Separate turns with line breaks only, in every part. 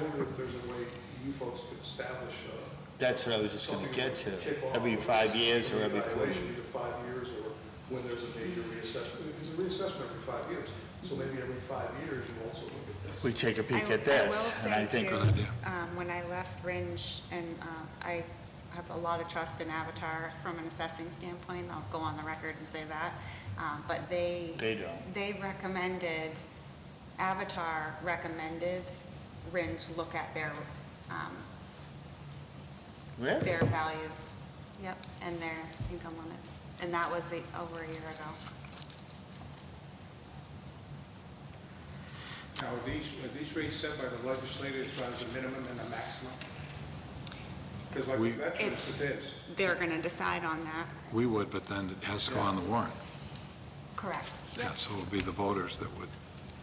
wonder if there's a way you folks could establish uh,
That's what I was just gonna
something
get
that
to,
would kick off
every five years or every four
evaluation,
years.
Either five years or when there's a major reassessment, it's a reassessment every five years. So maybe every five years you also look at this.
We take a peek
I-
at this, and I think,
will say too, um, when I left Ringe, and uh, I have a lot of trust in Avatar from an assessing standpoint, I'll go on the record and say that, um, but they.
They don't.
They recommended, Avatar recommended Ringe look at their, um,
really?
their values, yep, and their income limits, and that was a- over a year ago.
Now, are these, are these rates set by the legislature as far as the minimum and the maximum? Because like the veterans,
It's-
it is.
They're going to decide on that.
We would, but then it has to go on the warrant.
Correct.
Yeah, so it would be the voters that would,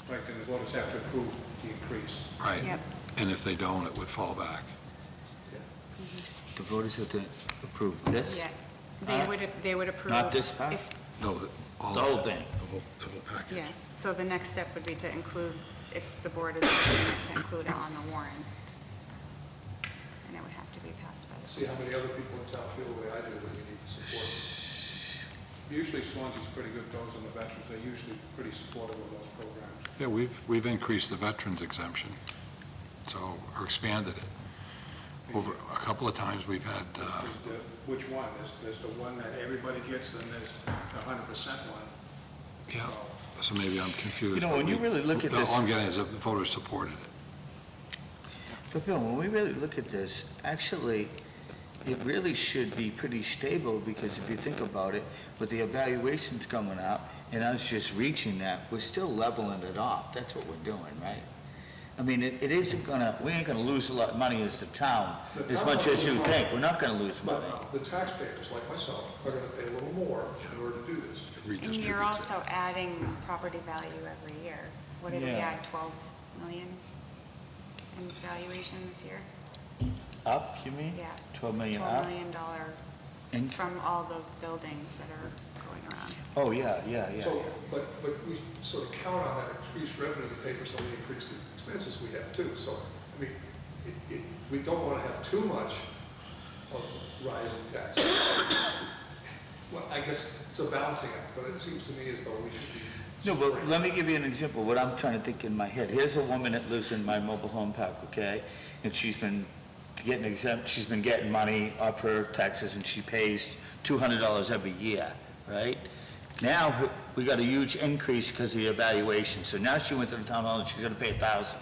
Right, and the voters have to approve the increase.
right?
Yep.
And if they don't, it would fall back.
The voters have to approve this?
Yeah, they
Huh?
would, they would approve.
Uh, Not this part?
if-
No, the- all.
The whole thing.
The whole, the whole package.
Yeah, so the next step would be to include, if the board is willing to include it on the warrant. And it would have to be passed by the.
See how many
voters.
other people in town feel the way I do that we need to support.
Usually Swansea's pretty good, those on the veterans, they're usually pretty supportive of those programs.
Yeah, we've, we've increased the veterans exemption, so, or expanded it. Over, a couple of times, we've had, uh,
There's the- Which one? There's, there's the one that everybody gets, then there's the hundred percent one.
yeah, so maybe I'm confused.
You know,
but
when you
we-
really look at
the-
this-
All I'm getting is that the voters supported it.
But Bill, when we really look at this, actually, it really should be pretty stable, because if you think about it, with the evaluations coming up, and us just reaching that, we're still leveling it off, that's what we're doing, right? I mean, it, it isn't gonna, we ain't gonna lose a lot of money as the town,
The
as
town's
much
not
as you
losing money.
think, we're not gonna lose
But
money.
uh, the taxpayers, like myself, are going to pay a little more in order to do this.
And
redistributes
you're
it.
also adding property value every year. What did we
Yeah.
add, 12 million in valuation this year?
Up, you mean?
Yeah.
Twelve million up?
$12 million dollar
In-
from all the buildings that are going around.
Oh, yeah, yeah, yeah,
So,
yeah.
but, but we sort of count on that increased revenue to pay for some of the increased expenses we have too. So, I mean, it, it, we don't want to have too much of rise in taxes. Well, I guess it's a balancing act, but it seems to me as though we should be.
No, but let me give you an example, what I'm trying to think in my head. Here's a woman that lives in my mobile home park, okay? And she's been getting exempt, she's been getting money off her taxes, and she pays two hundred dollars every year, right? Now, her- we got a huge increase because of the evaluation, so now she went to the town hall and she's gonna pay a thousand.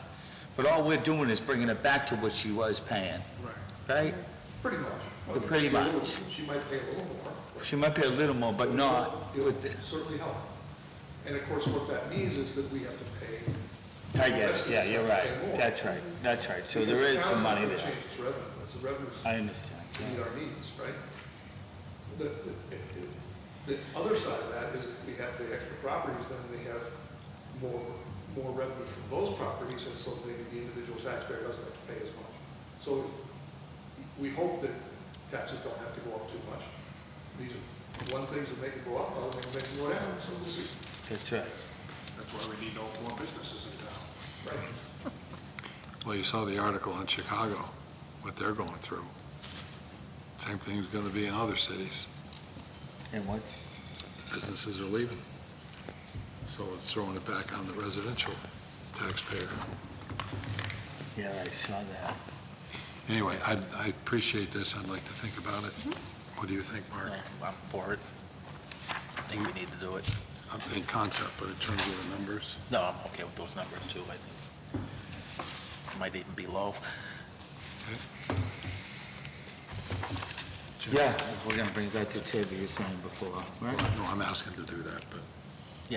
But all we're doing is bringing it back to what she was paying,
Right.
right?
Pretty much.
Well, pretty
A little-
much.
She might pay a little more. but-
She might pay a little more, but not
It
with
would
the,
certainly help. And of course, what that means is that we have to pay.
I guess, yeah, you're right,
Pay more.
that's right, that's right. So
Because
there
the
is
town's
some
not
money
gonna
there.
Change its revenue, it's the revenues
I understand,
to
yeah.
meet our needs, right? The, the, the other side of that is if we have the extra properties, then we have more, more revenue from those properties, and so maybe the individual taxpayer doesn't have to pay as much. So we hope that taxes don't have to go up too much. These are, one things that make it go up, other things make it go down, so we'll see,
That's right.
That's why we need all four businesses in town.
right?
Well, you saw the article on Chicago, what they're going through. Same thing's going to be in other cities.
And what's,
Businesses are leaving. So it's throwing it back on the residential taxpayer.
yeah, I saw that.
Anyway, I, I appreciate this. I'd like to think about it. What do you think, Mark?
I'm for it. I think we need to do it.
Um, In concept, but in terms of the numbers,
No, I'm okay with those numbers too, I think. Might even be low.
Yeah, we're gonna bring that to table, you were saying before, right?
no, I'm asking to do that, but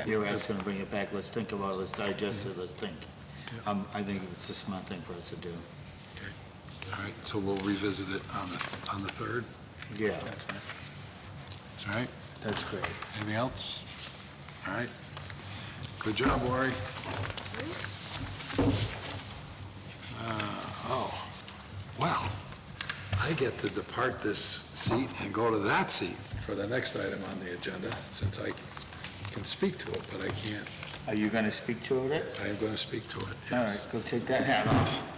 You were asking to bring it back, let's think about it, let's digest it, let's think. Um, I think it's a smart thing for us to do.
All right, so we'll revisit it on the, on the 3rd,
Yeah,
all right?
that's great.
Anything else? All right. Good job, Lori. Uh, Oh, wow. I get to depart this seat and go to that seat for the next item on the agenda, since I can speak to it, but I can't.
Are you gonna speak to it?
I am going to speak to it.
All right, go take that hat off.